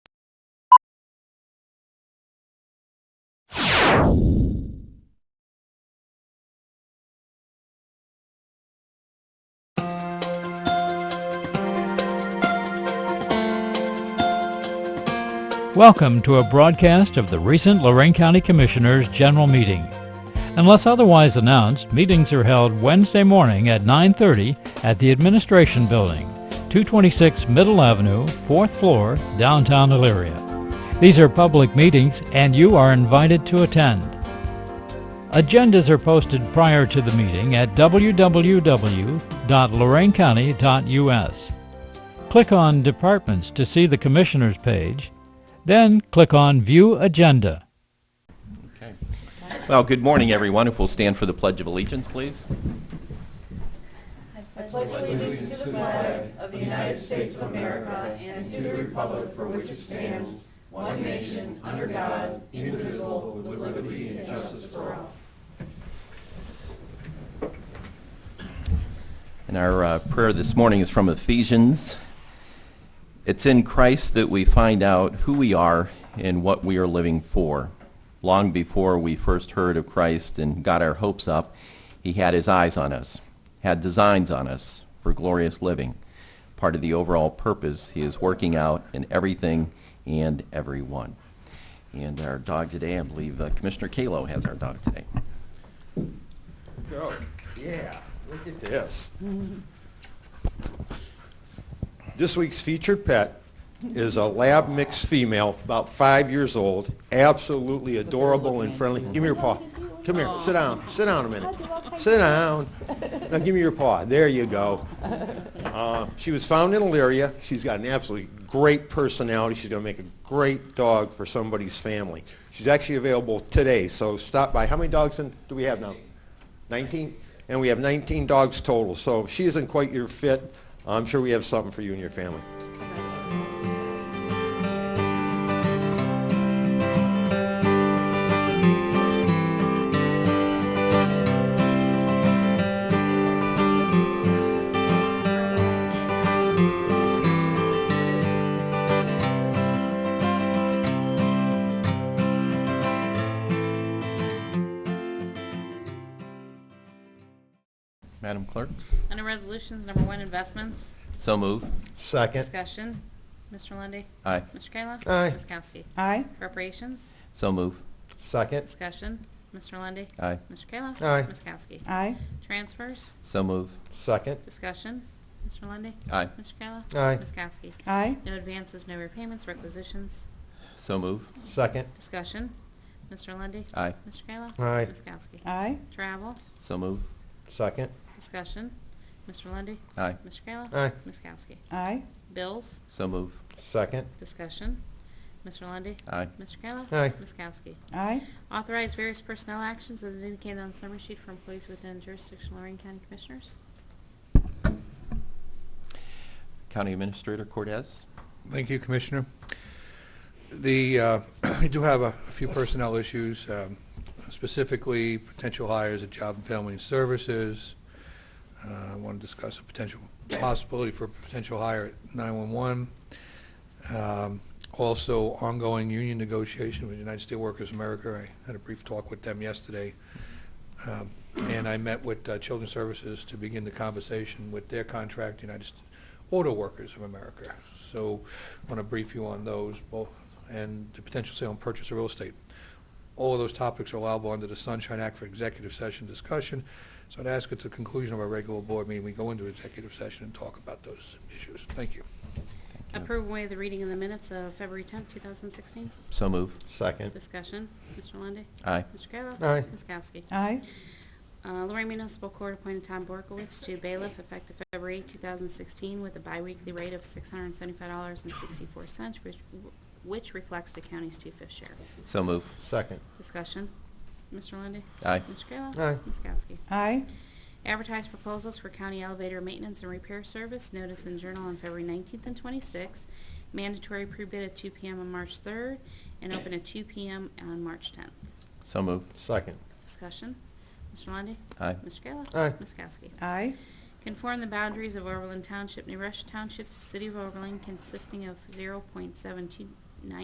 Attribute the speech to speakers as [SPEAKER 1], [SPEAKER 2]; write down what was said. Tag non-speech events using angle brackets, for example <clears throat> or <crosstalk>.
[SPEAKER 1] Welcome to a broadcast of the recent Lorraine County Commissioners' General Meeting. Unless otherwise announced, meetings are held Wednesday morning at 9:30 at the Administration Building, 226 Middle Avenue, 4th floor, downtown Elyria. These are public meetings and you are invited to attend. Agendas are posted prior to the meeting at www.lorainecounty.us. Click on Departments to see the Commissioners page, then click on View Agenda.
[SPEAKER 2] Well, good morning, everyone. If we'll stand for the Pledge of Allegiance, please. And our uh, prayer this morning is from Ephesians. It's in Christ that we find out who we are and what we are living for. Long before we first heard of Christ and got our hopes up, he had his eyes on us, had designs on us for glorious living, part of the overall purpose he is working out in everything and everyone. And our dog today, I believe uh, Commissioner Kalo has our dog today.
[SPEAKER 3] Oh, yeah, look at this. This week's featured pet is a lab mix female, about five years old, absolutely adorable and friendly. Give me your paw. Come here, sit down, sit down a minute. Sit down. Now give me your paw. There you go. Uh, she was found in Elyria. She's got an absolutely great personality. She's going to make a great dog for somebody's family. She's actually available today, so stop by. How many dogs in, do we have now? 19? And we have 19 dogs total. So if she isn't quite your fit, I'm sure we have something for you and your family.
[SPEAKER 2] Madam Clerk?
[SPEAKER 4] Under Resolutions Number One, Investments,
[SPEAKER 2] So move.
[SPEAKER 3] Second.
[SPEAKER 4] Discussion, Mr. Lundy,
[SPEAKER 2] Aye.
[SPEAKER 4] Mr. Kayla.
[SPEAKER 3] Aye.
[SPEAKER 4] Ms. Kowski.
[SPEAKER 5] Aye.
[SPEAKER 4] Appropriations,
[SPEAKER 2] So move.
[SPEAKER 3] Second.
[SPEAKER 4] Discussion, Mr. Lundy,
[SPEAKER 2] Aye.
[SPEAKER 4] Mr. Kayla.
[SPEAKER 3] Aye.
[SPEAKER 4] Ms. Kowski.
[SPEAKER 5] Aye.
[SPEAKER 4] Transfers,
[SPEAKER 2] So move.
[SPEAKER 3] Second.
[SPEAKER 4] Discussion, Mr. Lundy,
[SPEAKER 2] Aye.
[SPEAKER 4] Mr. Kayla.
[SPEAKER 3] Aye.
[SPEAKER 4] Ms. Kowski.
[SPEAKER 5] Aye.
[SPEAKER 4] No advances, no repayments, requisitions,
[SPEAKER 2] So move.
[SPEAKER 3] Second.
[SPEAKER 4] Discussion, Mr. Lundy,
[SPEAKER 2] Aye.
[SPEAKER 4] Mr. Kayla.
[SPEAKER 3] Aye.
[SPEAKER 4] Ms. Kowski.
[SPEAKER 5] Aye.
[SPEAKER 4] Travel,
[SPEAKER 2] So move.
[SPEAKER 3] Second.
[SPEAKER 4] Discussion, Mr. Lundy,
[SPEAKER 2] Aye.
[SPEAKER 4] Mr. Kayla.
[SPEAKER 3] Aye.
[SPEAKER 4] Ms. Kowski.
[SPEAKER 5] Aye.
[SPEAKER 4] Bills,
[SPEAKER 2] So move.
[SPEAKER 3] Second.
[SPEAKER 4] Discussion. Mr. Lundy,
[SPEAKER 2] Aye.
[SPEAKER 4] Mr. Kayla.
[SPEAKER 3] Aye.
[SPEAKER 4] Ms. Kowski.
[SPEAKER 5] Aye.
[SPEAKER 4] Authorize various personnel actions as indicated on the summary sheet for employees within jurisdiction of Lorraine County Commissioners.
[SPEAKER 2] County Administrator Cortez.
[SPEAKER 6] Thank you, Commissioner. The, uh, <clears throat> I do have a few personnel issues, um, specifically potential hires at Job and Family Services. Uh, I want to discuss a potential possibility for a potential hire at 911. Um, Also, ongoing union negotiation with United Steelworkers America. I had a brief talk with them yesterday. Um, And I met with uh, Children's Services to begin the conversation with their contract, United St- Auto Workers of America. So I want to brief you on those, both, and the potential sale and purchase of real estate. All of those topics are allowable under the Sunshine Act for executive session discussion. So I'd ask at the conclusion of our regular board meeting, we go into executive session and talk about those issues. Thank you.
[SPEAKER 4] Approve away the reading in the minutes of February 10th, 2016.
[SPEAKER 2] So move.
[SPEAKER 3] Second.
[SPEAKER 4] Discussion. Mr. Lundy,
[SPEAKER 2] Aye.
[SPEAKER 4] Mr. Kayla.
[SPEAKER 3] Aye.
[SPEAKER 4] Ms. Kowski.
[SPEAKER 5] Aye.
[SPEAKER 4] Uh, Lorraine Municipal Court appointed Tom Borkowitz to bailiff effective February 8, 2016 with a biweekly rate of $675.64, which- which reflects the county's two-fifth share.
[SPEAKER 2] So move.
[SPEAKER 3] Second.
[SPEAKER 4] Discussion. Mr. Lundy,
[SPEAKER 2] Aye.
[SPEAKER 4] Mr. Kayla.
[SPEAKER 3] Aye.
[SPEAKER 4] Ms. Kowski.
[SPEAKER 5] Aye.
[SPEAKER 4] Advertise proposals for county elevator maintenance and repair service, notice in Journal on February 19th and 26th, mandatory pre-bid at 2 PM on March 3rd, and open at 2 PM on March 10th.
[SPEAKER 2] So move.
[SPEAKER 3] Second.
[SPEAKER 4] Discussion, Mr. Lundy,
[SPEAKER 2] Aye.
[SPEAKER 4] Mr. Kayla?
[SPEAKER 3] Aye.
[SPEAKER 4] Ms. Kowski?
[SPEAKER 5] Aye.
[SPEAKER 4] Conform the boundaries of Overland Township, New Russia Township to City of Overland consisting of 0.72